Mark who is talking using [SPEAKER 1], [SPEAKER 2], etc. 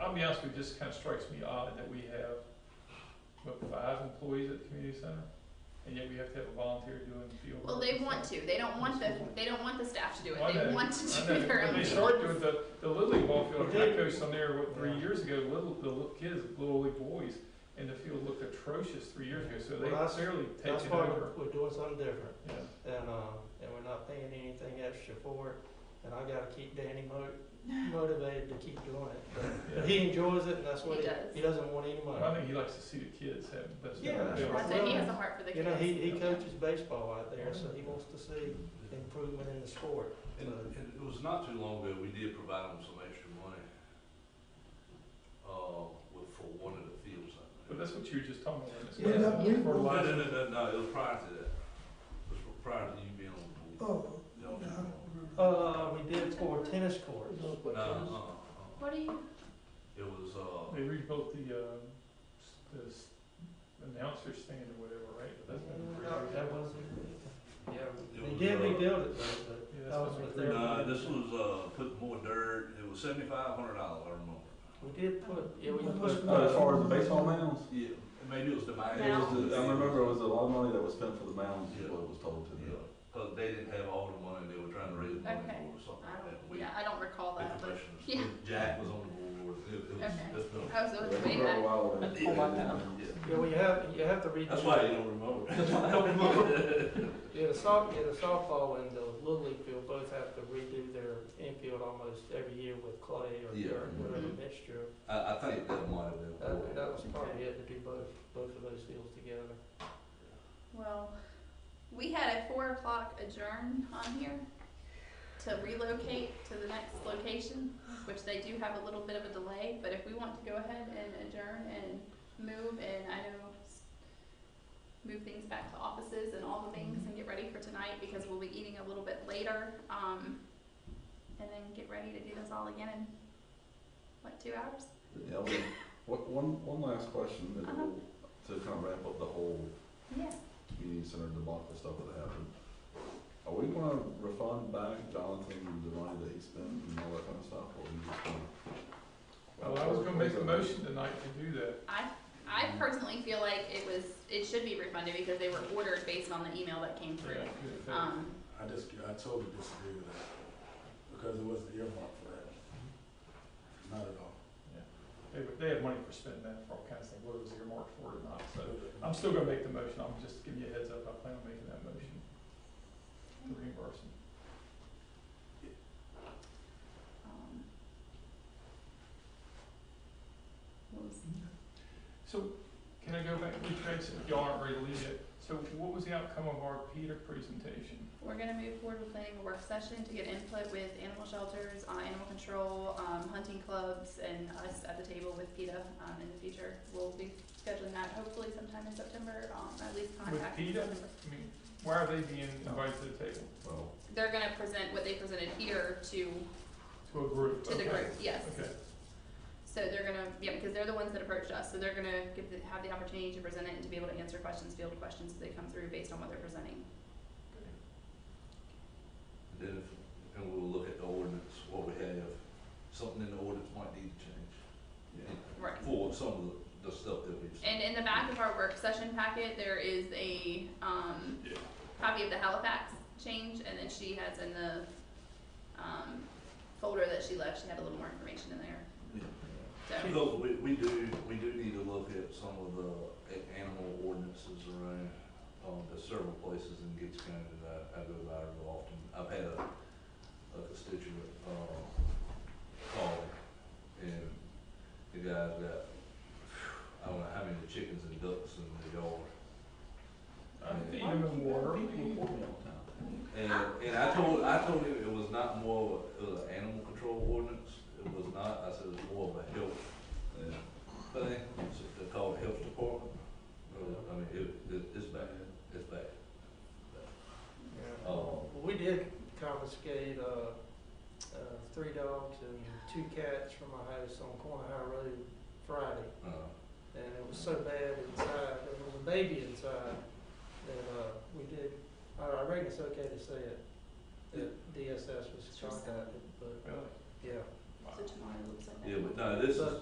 [SPEAKER 1] I'll be honest with you, this kind of strikes me odd that we have, what, five employees at the community center? And yet we have to have a volunteer doing field work.
[SPEAKER 2] Well, they
[SPEAKER 1] and
[SPEAKER 2] want
[SPEAKER 1] stuff.
[SPEAKER 2] to, they don't want the, they don't want the staff to do
[SPEAKER 1] Well, I
[SPEAKER 2] it, they
[SPEAKER 1] know.
[SPEAKER 2] want
[SPEAKER 1] I
[SPEAKER 2] to
[SPEAKER 1] know,
[SPEAKER 2] do their
[SPEAKER 1] When
[SPEAKER 2] own
[SPEAKER 1] they
[SPEAKER 2] thing.
[SPEAKER 1] started with the, the Little League ball field,
[SPEAKER 3] But
[SPEAKER 1] I
[SPEAKER 3] they-
[SPEAKER 1] coached on there, what, three
[SPEAKER 3] Yeah.
[SPEAKER 1] years ago, little, the little kids, little league boys, and the field looked atrocious three years ago, so they
[SPEAKER 3] Well, that's-
[SPEAKER 1] clearly
[SPEAKER 3] That's
[SPEAKER 1] taken
[SPEAKER 3] why
[SPEAKER 1] over.
[SPEAKER 3] we're- we're doing something different,
[SPEAKER 1] Yeah,
[SPEAKER 3] and, uh, and we're not paying anything extra for it, and I gotta keep Danny mo- motivated to keep doing it. But- But
[SPEAKER 1] yeah.
[SPEAKER 3] he enjoys it, and that's what
[SPEAKER 2] He
[SPEAKER 3] he,
[SPEAKER 2] does.
[SPEAKER 3] he doesn't want any
[SPEAKER 1] Well, I
[SPEAKER 3] money.
[SPEAKER 1] think he likes to see the kids have the best.
[SPEAKER 3] Yeah, that's
[SPEAKER 1] field.
[SPEAKER 3] right.
[SPEAKER 2] I said he has a heart for the
[SPEAKER 3] You know, he,
[SPEAKER 2] kids.
[SPEAKER 3] he coaches baseball out there, so he wants to see improvement in the sport.
[SPEAKER 4] And, and it was not too long ago, we did provide them some extra money, uh, with, for one of the fields. I think.
[SPEAKER 1] But that's what you were just talking about.
[SPEAKER 3] Yeah.
[SPEAKER 1] It's
[SPEAKER 5] Yeah.
[SPEAKER 1] for
[SPEAKER 4] No,
[SPEAKER 1] life.
[SPEAKER 4] no, no, no, no, it was prior to that, it was prior to you being on the board.
[SPEAKER 5] Oh,
[SPEAKER 4] No, no,
[SPEAKER 5] no, I don't remember.
[SPEAKER 3] Uh, we did for tennis courts.
[SPEAKER 4] no, uh, uh,
[SPEAKER 2] What do you,
[SPEAKER 4] it was, uh,
[SPEAKER 1] They rebuilt the, um, s- the s- announcer stand or whatever, right? But that's been three
[SPEAKER 3] No,
[SPEAKER 1] years.
[SPEAKER 3] Mm, That wasn't,
[SPEAKER 4] it
[SPEAKER 3] we
[SPEAKER 4] was,
[SPEAKER 3] did
[SPEAKER 4] uh,
[SPEAKER 3] rebuild it, though,
[SPEAKER 1] Yeah,
[SPEAKER 3] but
[SPEAKER 1] that's
[SPEAKER 3] that was
[SPEAKER 1] been
[SPEAKER 3] with
[SPEAKER 1] three
[SPEAKER 3] their.
[SPEAKER 1] years.
[SPEAKER 4] Nah, this was, uh, put more dirt, it was seventy-five hundred dollars, I remember.
[SPEAKER 3] We did put, yeah, we
[SPEAKER 5] That
[SPEAKER 3] put.
[SPEAKER 5] was-
[SPEAKER 6] Uh, as far as the baseball mounds,
[SPEAKER 4] Yeah, maybe it was the mound.
[SPEAKER 6] it was the, I remember it was a lot of money that was spent for the mounds, is
[SPEAKER 4] Yeah.
[SPEAKER 6] what was told to me.
[SPEAKER 4] Yeah, cause they didn't have all the money, they were trying to raise money
[SPEAKER 2] Okay.
[SPEAKER 4] for or something
[SPEAKER 2] I
[SPEAKER 4] like that.
[SPEAKER 2] don't,
[SPEAKER 4] We-
[SPEAKER 2] yeah, I don't recall
[SPEAKER 4] the
[SPEAKER 2] that, but,
[SPEAKER 4] commissioners.
[SPEAKER 2] yeah,
[SPEAKER 4] Jack was on the board, it, it was,
[SPEAKER 2] Okay.
[SPEAKER 4] it's been.
[SPEAKER 2] I was, it was way
[SPEAKER 6] For a
[SPEAKER 2] back.
[SPEAKER 4] I
[SPEAKER 6] while, it
[SPEAKER 4] did.
[SPEAKER 6] was-
[SPEAKER 3] Yeah, well, you have, you have to read.
[SPEAKER 4] That's why you don't remember. That's why I don't remember.
[SPEAKER 3] Yeah, the soft, yeah, the softball and the little league field both have to redo their infield almost every year with clay or
[SPEAKER 4] Yeah.
[SPEAKER 3] dirt, whatever
[SPEAKER 2] Mhm.
[SPEAKER 3] mixture.
[SPEAKER 4] I, I think that might have been.
[SPEAKER 3] That, that was probably it to do both, both of those fields together.
[SPEAKER 2] Well, we had a four o'clock adjourn on here to relocate to the next location, which they do have a little bit of a delay, but if we want to go ahead and adjourn and move and I know s- move things back to offices and all the things and get ready for tonight because we'll be eating a little bit later, um, and then get ready to do this all again in, what, two hours?
[SPEAKER 6] Yeah, well, what- one, one last question, and
[SPEAKER 2] Uh-huh.
[SPEAKER 6] we'll- to kind of wrap up the whole
[SPEAKER 2] Yeah.
[SPEAKER 6] community center debacle stuff that happened. Are we gonna refund back Jonathan the money that he spent and all that kind of stuff, or are we just gonna?
[SPEAKER 1] Well, I was gonna make a motion tonight to do that.
[SPEAKER 2] I, I personally feel like it was, it should be refunded because they were ordered based on the email that came
[SPEAKER 1] Yeah,
[SPEAKER 2] through.
[SPEAKER 1] good effect.
[SPEAKER 2] Um,
[SPEAKER 7] I just, I totally disagree with that, because it wasn't earmarked for that. Not at all.
[SPEAKER 1] They, were- they had money for spending that for all kinds of things, whether it was earmarked for it or not, so. I'm still gonna make the motion, I'm just giving you a heads up, I plan on making that motion to
[SPEAKER 2] Mm.
[SPEAKER 1] reimburse them.
[SPEAKER 2] um, what was-
[SPEAKER 1] So, can I go back, retrace if y'all aren't ready to leave yet? So what was the outcome of our Peter presentation?
[SPEAKER 2] We're gonna move forward with planning a work session to get input with animal shelters, uh, animal control, um, hunting clubs, and us at the table with PETA, um, in the future. We'll be scheduling that hopefully sometime in September, um, at least contact.
[SPEAKER 1] PETA? I mean, why are they being invited to the table,
[SPEAKER 6] Well,
[SPEAKER 2] They're gonna present what they presented here to,
[SPEAKER 1] to a group?
[SPEAKER 2] to the
[SPEAKER 1] Okay.
[SPEAKER 2] group, yes.
[SPEAKER 1] Okay,
[SPEAKER 2] So they're gonna, yeah, because they're the ones that approached us, so they're gonna give, the- have the opportunity to present it and to be able to answer questions, field questions as they come through based on what they're presenting.
[SPEAKER 4] Then, if- and we'll look at the ordinance, what we have, something in the ordinance might need to change.
[SPEAKER 6] yeah.
[SPEAKER 2] Right.
[SPEAKER 4] For some of the, the stuff that we've seen.
[SPEAKER 2] And in the back of our work session packet, there is a, um,
[SPEAKER 4] Yeah.
[SPEAKER 2] copy of the Halifax change, and then she has in the, um, folder that she left, she had a little more information in there.
[SPEAKER 4] Yeah.
[SPEAKER 2] So,
[SPEAKER 4] So we, we do, we do need to look at some of the a- animal ordinances around, um, there's several places in Gates County that I, I go by real often. I've had a, a constituent, uh, call and the guy's got, I don't know how many chickens and ducks in the yard.
[SPEAKER 1] I think
[SPEAKER 4] Yeah.
[SPEAKER 1] I'm in water.
[SPEAKER 6] People report me all the time.
[SPEAKER 4] And, and I told, I told him it was not more of a, it was an animal control ordinance, it was not, I said it was more of a health
[SPEAKER 6] Yeah.
[SPEAKER 4] thing, so they call it health department. Uh, I mean, it, it, it's bad, it's bad.
[SPEAKER 3] Yeah.
[SPEAKER 4] Oh.
[SPEAKER 3] Well, We did confiscate, uh, uh, three dogs and two cats from my house on Corner High Road Friday.
[SPEAKER 4] Uh,
[SPEAKER 3] And it was so bad inside, there was a baby inside, that, uh, we did, I, I reckon it's okay to say it, that DSS was contacted, but,
[SPEAKER 1] Really?
[SPEAKER 3] yeah.
[SPEAKER 1] Wow.
[SPEAKER 2] so tomorrow looks like that.
[SPEAKER 4] yeah, but no, this is,